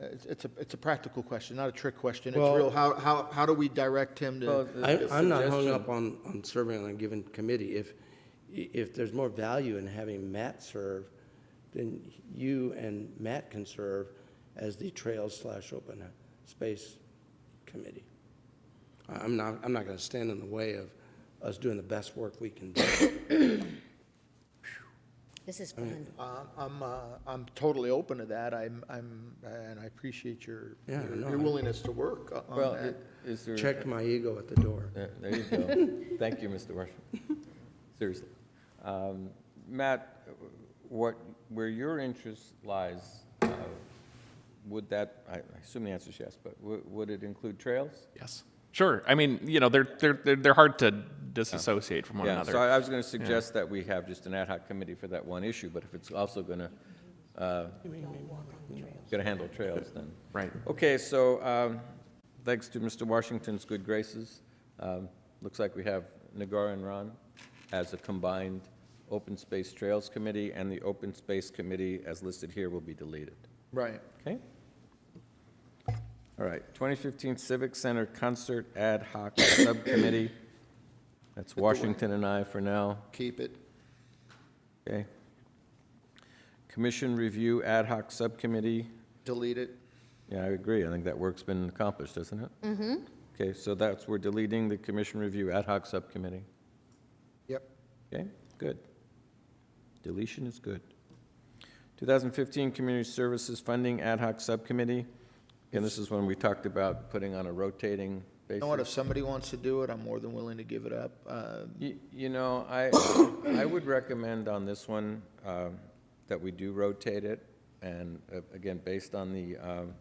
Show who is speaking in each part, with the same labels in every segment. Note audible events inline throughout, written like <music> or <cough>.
Speaker 1: It's, it's a, it's a practical question, not a trick question. It's
Speaker 2: Well-
Speaker 1: real, how, how, how do we direct him to?
Speaker 3: I, I'm not hung up on, on serving on a given committee. If, if there's more value in having Matt serve, then you and Matt can serve as the Trails slash Open Space Committee. I- I'm not, I'm not gonna stand in the way of us doing the best work we can do.
Speaker 4: This is fun.
Speaker 1: Uh, I'm, uh, I'm totally open to that. I'm, I'm, and I appreciate your,
Speaker 3: Yeah,
Speaker 1: your
Speaker 3: no,
Speaker 1: your
Speaker 3: I-
Speaker 1: willingness to work o-
Speaker 2: Well,
Speaker 1: on that.
Speaker 2: i- is there?
Speaker 3: Checked my ego at the door.
Speaker 2: There there you
Speaker 1: <laughs>
Speaker 2: go. Thank you, Mr. Rushing. Seriously. Um, Matt, what, where your interest lies, uh, would that, I I assume the answer is yes, but wou- would it include trails?
Speaker 5: Yes. Sure. I mean, you know, they're they're they're, they're hard to disassociate from one
Speaker 2: Yeah,
Speaker 5: another.
Speaker 2: so I I was going to suggest that we have just an ad hoc committee for that one issue, but if it's also going to, going to handle trails, then.
Speaker 5: Right.
Speaker 2: Okay, so um, thanks to Mr. Washington's good graces, um, looks like we have Nagar and Ron as a combined Open Space Trails Committee, and the Open Space Committee, as listed here, will be deleted.
Speaker 1: Right.
Speaker 2: Okay? All right, 2015 Civic Center Concert Ad Hoc <coughs> Subcommittee. That's Washington and I for now.
Speaker 1: Keep it.
Speaker 2: Okay. Commission Review Ad Hoc Subcommittee,
Speaker 1: Delete it.
Speaker 2: yeah, I agree, I think that work's been accomplished, isn't it? Mm-hmm. Okay, so that's, we're deleting the Commission Review Ad Hoc Subcommittee,
Speaker 1: Yep.
Speaker 2: okay, good. Deletion is good. 2015 Community Services Funding Ad Hoc Subcommittee, and this is when we talked about putting on a rotating
Speaker 1: You
Speaker 2: basis.
Speaker 1: know what, if somebody wants to do it, I'm more than willing to give it up. Uh,
Speaker 2: Y- You know, I, I would recommend on this one um, that we do rotate it, and uh, again, based on the, um,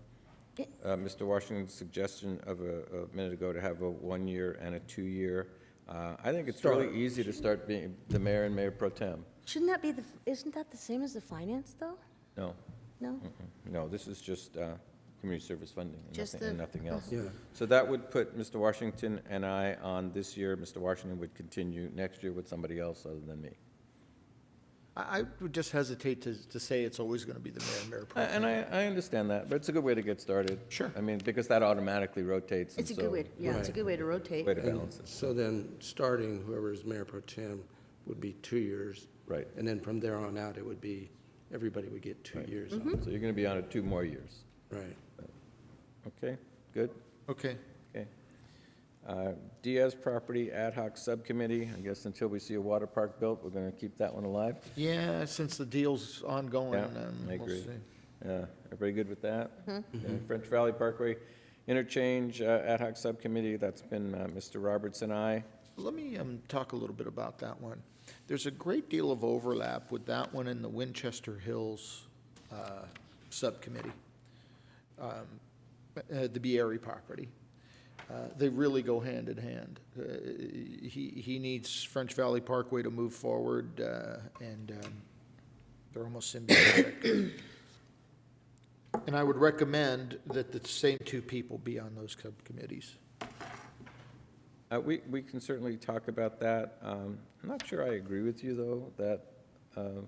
Speaker 2: uh, Mr. Washington's suggestion of a a minute ago to have a one-year and a two-year, uh, I think it's really easy to start being the mayor and mayor pro tem.
Speaker 4: Shouldn't that be the, isn't that the same as the finance, though?
Speaker 2: No,
Speaker 4: No?
Speaker 3: Mm.
Speaker 2: no, this is just uh, community service funding and
Speaker 4: Just
Speaker 2: nothing- and
Speaker 4: the-
Speaker 2: nothing else.
Speaker 3: Yeah.
Speaker 2: So that would put Mr. Washington and I on this year. Mr. Washington would continue next year with somebody else other than me.
Speaker 1: I, I would just hesitate to, to say it's always going to be the mayor, and mayor pro
Speaker 2: Uh, And I, I understand that, but it's a good way to get started. Sure. I mean, because that automatically rotates. and
Speaker 4: It's a good
Speaker 2: so-
Speaker 4: way, yeah, it's a
Speaker 3: Right.
Speaker 4: good way to rotate.
Speaker 2: Way to
Speaker 3: And
Speaker 2: balance it.
Speaker 3: So then, starting whoever is mayor pro tem would be two years.
Speaker 2: Right.
Speaker 3: And then from there on out, it would be, everybody would get two years. on
Speaker 4: Mm-hmm.
Speaker 3: it.
Speaker 2: So you're going to be on it two more years.
Speaker 3: Right.
Speaker 2: Okay, good,
Speaker 1: Okay.
Speaker 2: okay. Uh, Diaz Property Ad Hoc Subcommittee, I guess until we see a water park built, we're going to keep that one alive.
Speaker 1: Yeah, since the deal's ongoing,
Speaker 2: Yeah,
Speaker 1: um,
Speaker 2: I
Speaker 1: we'll
Speaker 2: agree.
Speaker 1: see.
Speaker 2: Yeah, Uh, everybody good with that?
Speaker 4: Mm-hmm.
Speaker 2: Yeah, French Valley Parkway Interchange uh, Ad Hoc Subcommittee, that's been uh, Mr. Roberts and I.
Speaker 1: Let me um, talk a little bit about that one. There's a great deal of overlap with that one and the Winchester Hills uh, Subcommittee, um, uh, the Bieri property. Uh, They really go hand in hand. Uh, He, he needs French Valley Parkway to move forward, uh, and um, they're almost symbiotic. And I would recommend that the same two people be on those subcommittees.
Speaker 2: Uh, We, we can certainly talk about that. Um, I'm not sure I agree with you, though, that, uh,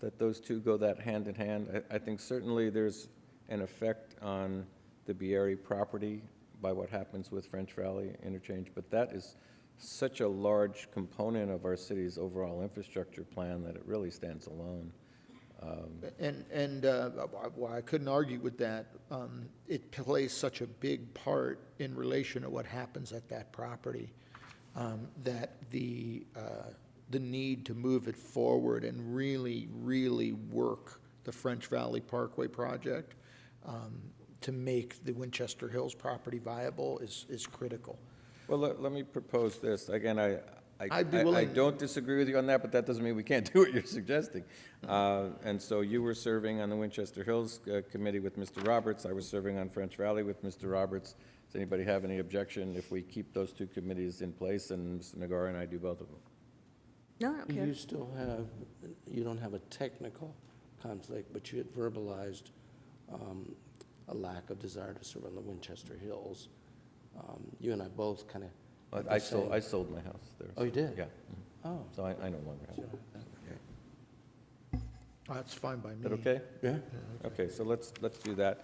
Speaker 2: that those two go that hand in hand. I, I think certainly there's an effect on the Bieri property by what happens with French Valley Interchange, but that is such a large component of our city's overall infrastructure plan that it really stands alone.
Speaker 1: And, and uh, I- well, I couldn't argue with that. Um, It plays such a big part in relation to what happens at that property, um, that the, uh, the need to move it forward and really, really work the French Valley Parkway project um, to make the Winchester Hills property viable is, is critical.
Speaker 2: Well, let, let me propose this. Again, I, I,
Speaker 1: I'd be
Speaker 2: I- I
Speaker 1: willing-
Speaker 2: don't disagree with you on that, but that doesn't mean we can't <laughs> do what you're suggesting. Uh, And so you were serving on the Winchester Hills uh, Committee with Mr. Roberts. I was serving on French Valley with Mr. Roberts. Does anybody have any objection if we keep those two committees in place and Mr. Nagar and I do both of them?
Speaker 4: No, I don't care.
Speaker 3: You still have, you don't have a technical conflict, but you had verbalized um, a lack of desire to serve on the Winchester Hills. Um, You and I both kind of.
Speaker 2: I- I sold, I sold my house there.
Speaker 3: Oh, you did?
Speaker 2: Yeah.
Speaker 3: Oh,
Speaker 2: So I, I no longer have it.
Speaker 1: That's fine by me.
Speaker 2: Is that okay?
Speaker 3: yeah.
Speaker 2: Okay, so let's, let's do that.